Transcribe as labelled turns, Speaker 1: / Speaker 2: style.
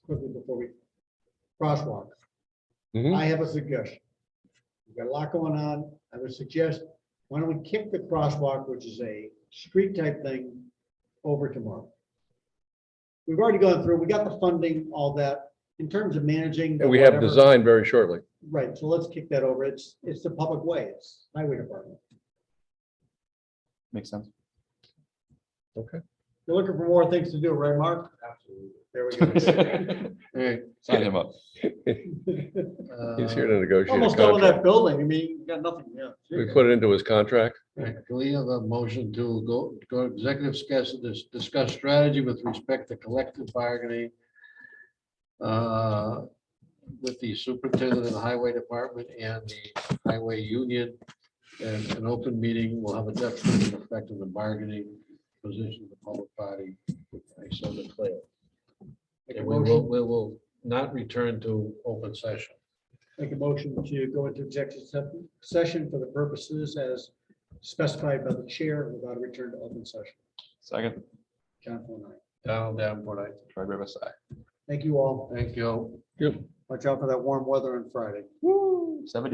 Speaker 1: crosswalk.
Speaker 2: Mhm.
Speaker 1: I have a suggestion. We've got a lot going on. I would suggest, why don't we kick the crosswalk, which is a street type thing, over tomorrow? We've already gone through, we got the funding, all that, in terms of managing. the
Speaker 2: And we have
Speaker 1: whatever-
Speaker 2: design very shortly.
Speaker 1: Right, so let's kick that over. It's, it's the public way, it's highway department.
Speaker 3: Makes sense.
Speaker 1: You're looking for more things to do, right, Mark? Absolutely. There
Speaker 3: Sign him up.
Speaker 1: we go.
Speaker 2: He's
Speaker 4: Uh,
Speaker 2: here to negotiate a
Speaker 1: Almost done with that
Speaker 2: contract.
Speaker 1: building. I mean, you got nothing, yeah.
Speaker 2: We put it into his contract.
Speaker 4: right, Can we have a motion to go, go to executive discuss, dis- discuss strategy with respect to collective bargaining uh, with the superintendent of the highway department and the highway union. And an open meeting will have a detrimental effect on the bargaining position of the public body. I so declare.
Speaker 1: Make a
Speaker 4: And we will,
Speaker 1: motion,
Speaker 4: we will not return to open session.
Speaker 1: make a motion to go into executive se- session for the purposes as specified by the chair without a return to open session.
Speaker 3: Second,
Speaker 1: John Paul and I.
Speaker 4: Donald Davenport, aye.
Speaker 3: Troy Rivers, aye.
Speaker 1: Thank you all.
Speaker 4: Thank you.
Speaker 1: Watch out for that warm weather on Friday.
Speaker 3: Seventy.